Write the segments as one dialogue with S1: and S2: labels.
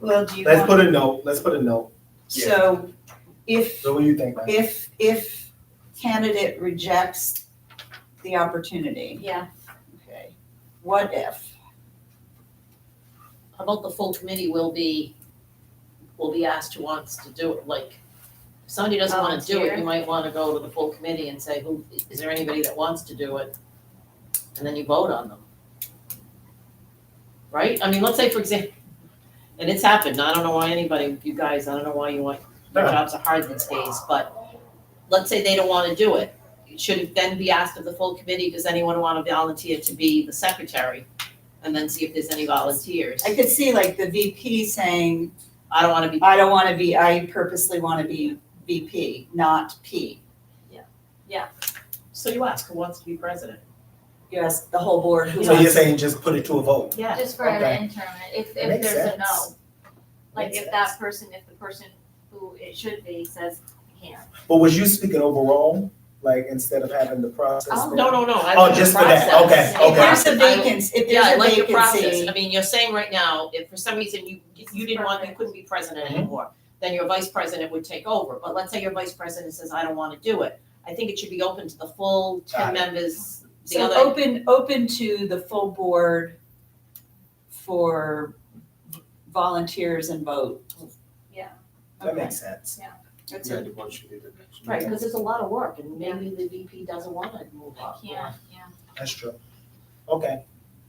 S1: Well, do you
S2: Let's
S1: want,
S2: put a note, let's put a note.
S1: so if,
S2: So what do you think, Mike?
S1: if, if candidate rejects the opportunity,
S3: Yeah,
S1: okay, what if?
S3: how about the full committee will be, will be asked who wants to do it, like, if somebody doesn't wanna do it, you
S4: Volunteer.
S3: might wanna go to the full committee and say, who, is there anybody that wants to do it? And then you vote on them. Right, I mean, let's say for example, and it's happened, I don't know why anybody, you guys, I don't know why you want, your
S2: No.
S3: jobs are hard these days, but let's say they don't wanna do it, should it then be asked of the full committee, does anyone wanna volunteer to be the secretary? And then see if there's any volunteers.
S1: I could see like the VP saying,
S3: I don't wanna be,
S1: I don't wanna be, I purposely wanna be VP, not P.
S3: so you ask who wants to be president?
S1: You ask the whole board who
S2: So you're
S1: wants.
S2: saying just put it to a vote?
S3: Yeah.
S4: Just for an
S2: Okay.
S4: interim, if, if
S2: Makes
S4: there's a
S2: sense.
S4: no, like
S2: Makes
S4: if that person, if the person who it should be says can't.
S2: But was you speaking overall, like instead of having the process?
S4: Oh,
S3: No, no, no, I
S2: Oh,
S3: like the
S2: just for that.
S3: process.
S2: Okay,
S1: If
S2: okay.
S1: there's a vacancy, if
S3: Yeah, I
S1: there's a
S3: like your process, I
S1: vacancy,
S3: mean, you're saying right now, if for some reason you, you didn't want, you couldn't be president
S2: Mhm.
S3: anymore, then your vice president would take over, but let's say your vice president says, I don't wanna do it. I think it should be open to the full ten
S2: Got it.
S3: members, the
S1: so
S3: other,
S1: open, open to the full board for volunteers and vote.
S4: Yeah.
S2: That
S1: Okay,
S2: makes sense.
S1: that's
S5: Yeah,
S1: it.
S5: the board should be the next.
S3: right, cause it's a lot of work, and maybe the VP doesn't wanna move up.
S4: Can't, yeah.
S2: That's true. Okay.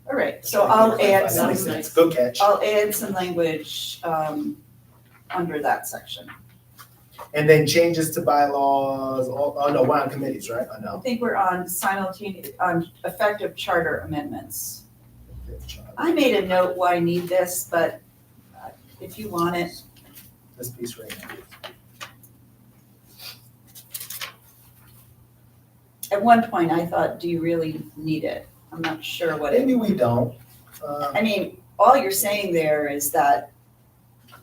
S1: All right, so I'll add
S2: That
S1: some,
S2: makes sense. Good catch.
S1: I'll add some language, um, under that section.
S2: And then changes to bylaws, oh, oh, no, we're on committees, right? Oh,
S1: I
S2: no.
S1: think we're on simultaneous, on effective charter amendments. I made a note why I need this, but uh, if you want it,
S2: This piece right here.
S1: at one point I thought, do you really need it? I'm not sure what it,
S2: Maybe we don't. Uh,
S1: I mean, all you're saying there is that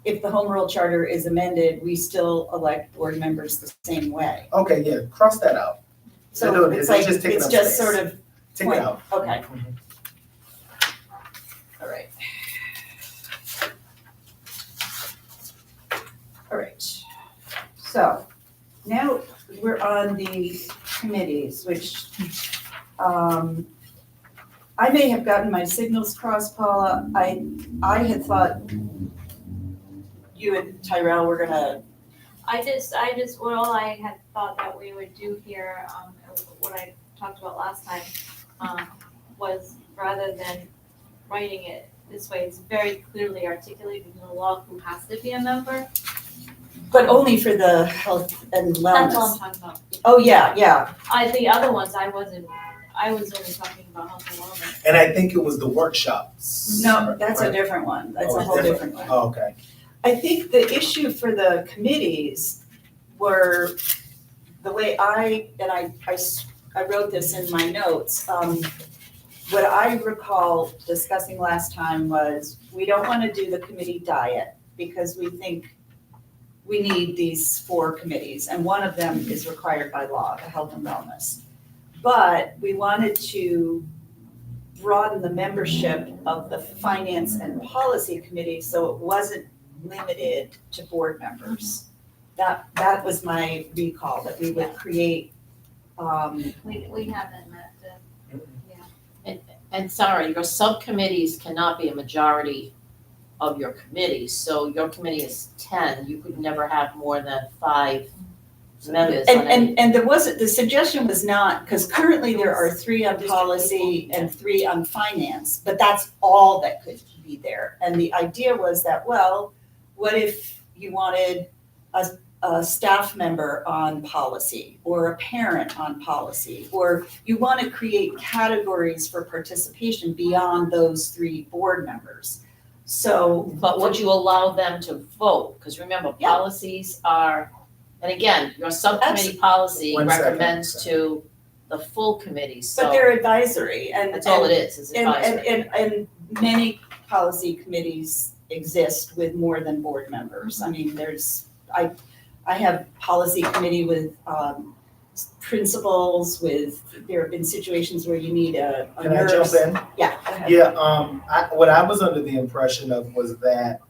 S1: if the home rule charter is amended, we still elect board members the same way.
S2: Uh, Okay, yeah, cross that out.
S1: So
S2: No,
S1: it's
S2: it's
S1: like,
S2: just taking
S1: it's
S2: up
S1: just
S2: space.
S1: sort of,
S2: Take it
S1: Point.
S2: out.
S1: okay,
S2: Mhm.
S1: all right. All right, so now we're on the committees, which, um, I may have gotten my signals crossed, Paula. I, I had thought you and Tyrell were gonna,
S4: I just, I just, well, all I had thought that we would do here, um, what I talked about last time, um, was rather than writing it this way, it's very clearly articulated in the law who has to be a member.
S1: but only for the health and
S4: That's all
S1: wellness.
S4: I'm talking about.
S1: Oh, yeah, yeah.
S4: I, the other ones, I wasn't, I was only talking about health and wellness.
S2: And I think it was the workshops.
S1: No, that's a
S2: right?
S1: different one. That's
S2: Oh,
S1: a
S2: it's
S1: whole different one.
S2: Oh, Okay.
S1: I think the issue for the committees were, the way I, and I, I, s- I wrote this in my notes, um, what I recall discussing last time was, we don't wanna do the committee diet, because we think we need these four committees, and one of them is required by law, the health and wellness. But we wanted to broaden the membership of the finance and policy committee, so it wasn't limited to board members. That, that was my recall, that we would create, um,
S4: We, we haven't met the,
S3: And sorry, your subcommittees cannot be a majority of your committee, so your committee is ten, you could never have more than five members
S1: and,
S3: on any.
S1: and, and there wasn't, the suggestion was not, because currently there are three on policy and three on finance, but that's all that could be there. And the idea was that, well, what if you wanted a, a staff member on policy or a parent on policy? Or you want to create categories for participation beyond those three board members. So,
S3: But would you allow them to vote? Because remember,
S1: Yeah.
S3: policies are, and again, your subcommittee policy
S2: One second.
S3: recommends to the full committee,
S1: but
S3: so
S1: they're advisory and.
S3: that's all
S1: and-
S3: it is, is
S1: And,
S3: advisory.
S1: and, and, and many policy committees exist with more than board members. I mean, there's, I, I have policy committee with, um, principals with, there have been situations where you need a, a
S2: Can I jump
S1: nurse.
S2: in?
S1: Yeah, go ahead.
S2: Yeah, um, I, what I was under the impression of was that